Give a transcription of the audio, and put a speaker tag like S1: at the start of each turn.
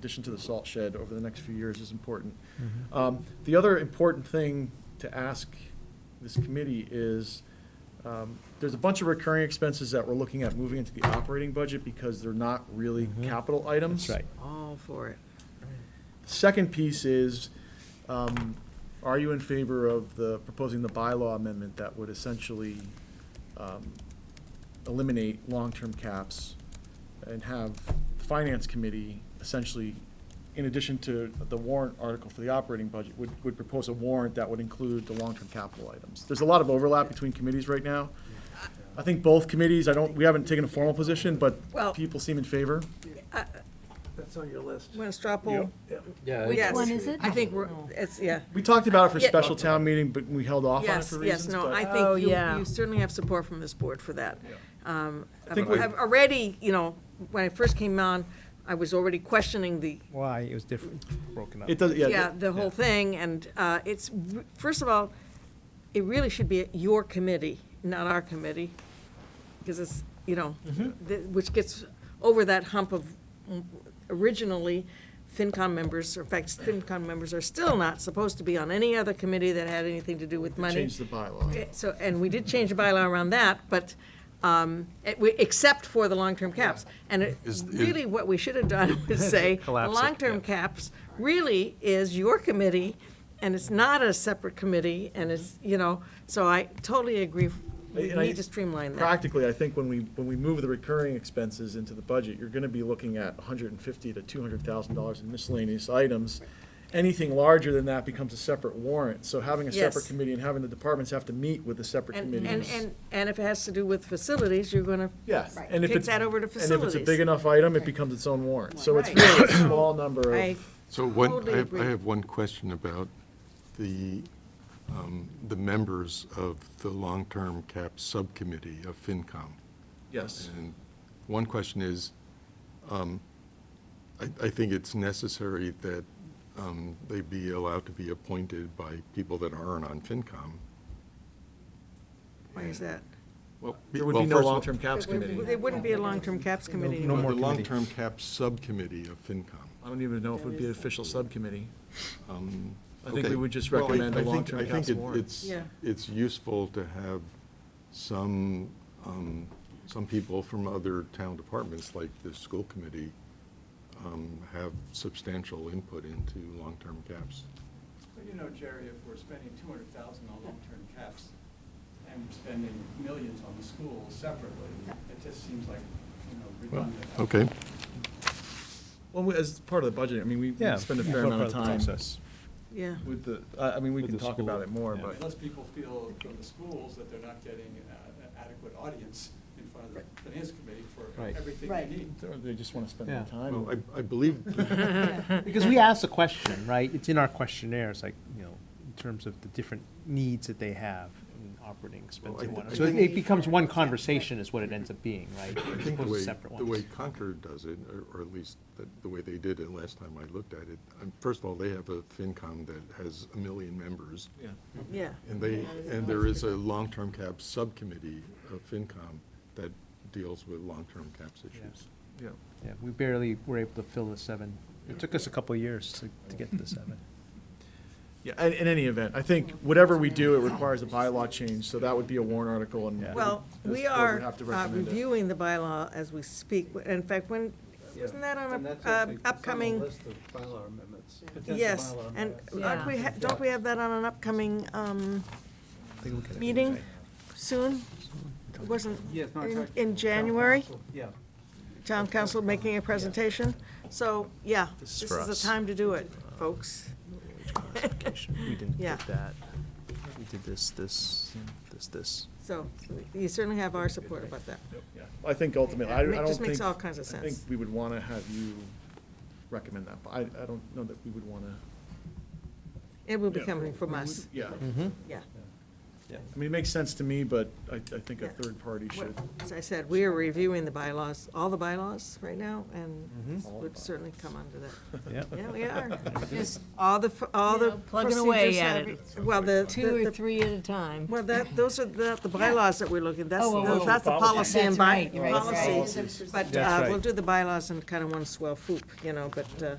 S1: addition to the salt shed over the next few years is important.
S2: Mm-hmm.
S1: Um, The other important thing to ask this committee is, um, there's a bunch of recurring expenses that we're looking at moving into the operating budget because they're not really
S2: Mhm.
S1: capital items.
S2: That's right.
S3: All for it.
S1: Second piece is, um, are you in favor of the, proposing the bylaw amendment that would essentially um, eliminate long-term caps and have the Finance Committee essentially, in addition to the warrant article for the operating budget, would, would propose a warrant that would include the long-term capital items? There's a lot of overlap between committees right now. I think both committees, I don't, we haven't taken a formal position, but
S3: Well-
S1: people seem in favor.
S4: That's on your list.
S3: Want to straw poll?
S5: Which
S3: Yes.
S5: one is it?
S3: I think we're, it's, yeah.
S1: We talked about it for
S3: Yeah.
S1: special town meeting, but we held off on it
S3: Yes,
S1: for reasons.
S3: yes, no,
S1: but-
S3: I
S4: Oh,
S3: think you-
S4: yeah.
S3: you certainly have support from this board for that. Um,
S1: I think
S3: I've
S1: we-
S3: I've already, you know, when I first came on, I was already questioning the,
S2: Why, it was different, broken up.
S1: It does,
S3: yeah,
S1: yeah,
S3: the whole thing, and uh, it's, r- first of all, it really should be your committee, not our committee, because it's, you know, th- which gets over that hump of, mm, originally, FinCom members, or in fact, FinCom members are still not supposed to be on any other committee that had anything to do with
S1: they
S3: money.
S1: changed the bylaw.
S3: Eh, So, and we did change the bylaw around that, but, um, eh, we- except for the long-term caps. And it-
S6: Is- is-
S3: really, what we should have done was say,
S2: Collapse it,
S3: long-term caps really is your committee, and it's not a separate committee, and it's, you know, so I totally agree, we
S1: And I-
S3: need to streamline that.
S1: Practically, I think when we, when we move the recurring expenses into the budget, you're gonna be looking at hundred and fifty to two hundred thousand dollars in miscellaneous items. Anything larger than that becomes a separate warrant, so having a separate
S3: Yes.
S1: committee and having the departments have to meet with the separate
S3: And, and,
S1: committees.
S3: and, and if it has to do with facilities, you're gonna,
S1: Yes,
S5: Right.
S1: and if
S3: Kick
S1: it's.
S3: that over to
S1: And if it's a
S3: facilities.
S1: big enough item, it becomes its own warrant, so it's
S3: Right.
S1: really a small number
S3: I,
S1: of,
S6: So one,
S3: Totally
S6: I have,
S3: agree.
S6: I have one question about the, um, the members of the long-term cap subcommittee of FinCom.
S1: yes.
S6: And one question is, um, I, I think it's necessary that um, they be allowed to be appointed by people that aren't on FinCom.
S3: why is that?
S6: Well,
S1: There would be
S6: well,
S1: no
S6: first of all-
S1: long-term caps committee.
S3: There wouldn't be a long-term caps committee
S2: No
S3: anymore.
S2: more
S6: The
S2: committee.
S6: long-term cap subcommittee of FinCom.
S1: I don't even know if it would be an official subcommittee. I think
S6: Okay.
S1: we would just
S6: Well, I-
S1: recommend
S6: I
S1: a
S6: think-
S1: long-term
S6: I
S1: caps
S6: think it-
S1: warrant.
S6: it's,
S3: Yeah.
S6: it's useful to have some, um, some people from other town departments, like the school committee, um, have substantial input into long-term caps.
S7: But you know, Jerry, if we're spending two hundred thousand on long-term caps and we're spending millions on the schools separately, it just seems like, you know, redundant.
S6: Okay.
S1: Well, we- as part of the budget, I mean, we we
S2: Yeah.
S1: spend a
S2: it's
S1: fair
S2: all
S1: amount of
S2: part
S1: time
S2: process.
S3: Yeah.
S1: with the, I I mean, we
S2: With
S1: can
S2: the
S1: talk about
S2: school,
S1: it more,
S2: yeah.
S1: but
S7: Unless people feel from the schools that they're not getting uh, an adequate audience in front of the finance committee for
S2: Right.
S7: everything
S5: Right.
S7: they need.
S1: Or they just want to spend
S2: Yeah.
S1: more time.
S6: Well, I, I believe,
S2: Because we asked the question, right? It's in our questionnaire, it's like, you know, in terms of the different needs that they have in operating expense
S6: Well, I
S2: and
S6: thi-
S2: whatnot.
S6: I
S2: So it
S6: think-
S2: it becomes one conversation is what it ends up being, right?
S6: I
S2: As
S6: think the
S2: opposed to
S6: way,
S2: separate
S6: the
S2: ones.
S6: way Concord does it, or- or at least the- the way they did it last time I looked at it, um, first of all, they have a FinCom that has a million members.
S1: Yeah.
S3: Yeah.
S6: And they, and there is a long-term cap subcommittee of FinCom that deals with long-term caps issues.
S1: Yeah.
S2: Yeah, we barely were able to fill the seven. It took us a couple of years to, to get to the seven.
S1: Yeah, in, in any event, I think whatever we do, it requires a bylaw change, so that would be a warrant article and.
S2: Yeah.
S3: Well,
S1: this
S3: we
S1: board would
S3: are
S1: have to
S3: uh,
S1: recommend it.
S3: reviewing the bylaw as we speak. In fact, when, wasn't that on a uh, upcoming?
S4: bylaw amendments.
S3: Yes, and aren't we, ha- don't we have that on an upcoming um,
S2: Take a look at it.
S3: meeting soon? It Wasn't,
S4: Yes, no, it's
S3: in-
S4: actually
S3: in January,
S4: Yeah.
S3: town council making a presentation? So, yeah,
S2: This
S3: this
S2: is
S3: is
S2: for us. Uh,
S3: the time to do it, folks.
S2: We didn't
S3: Yeah.
S2: get that. We did this, this, this, this.
S3: So you certainly have our support about that.
S1: Yeah. I think ultimately, I I
S3: It
S1: don't
S3: ma-
S1: think.
S3: just makes all kinds of
S1: I think
S3: sense.
S1: we would want to have you recommend that, but I, I don't know that we would want to.
S2: Mm-hmm.
S3: It will be coming from us,
S1: Yeah.
S3: yeah.
S2: Yeah.
S1: I mean, it makes sense to me, but I, I think a
S3: Yeah.
S1: third party should.
S3: As I said, we are reviewing the bylaws, all the bylaws right now, and
S2: Mhm.
S3: this would certainly come under that.
S2: Yeah.
S3: Yeah, we are.
S5: Just
S3: All the, f- all the
S5: You know, plugging away
S3: procedures
S5: at
S3: have-
S5: it.
S3: Well, the.
S5: two
S3: the-
S5: or
S3: the-
S5: three at a time.
S3: Well, that, those are the, the bylaws that we're looking, that's,
S5: Oh, oh, oh,
S3: that's the
S5: policy.
S3: policy and
S5: That's
S3: by,
S5: right, right, right.
S3: policy. But
S2: That's
S3: uh,
S2: right.
S3: we'll do the bylaws in kind of one swell swoop, you know, but, uh,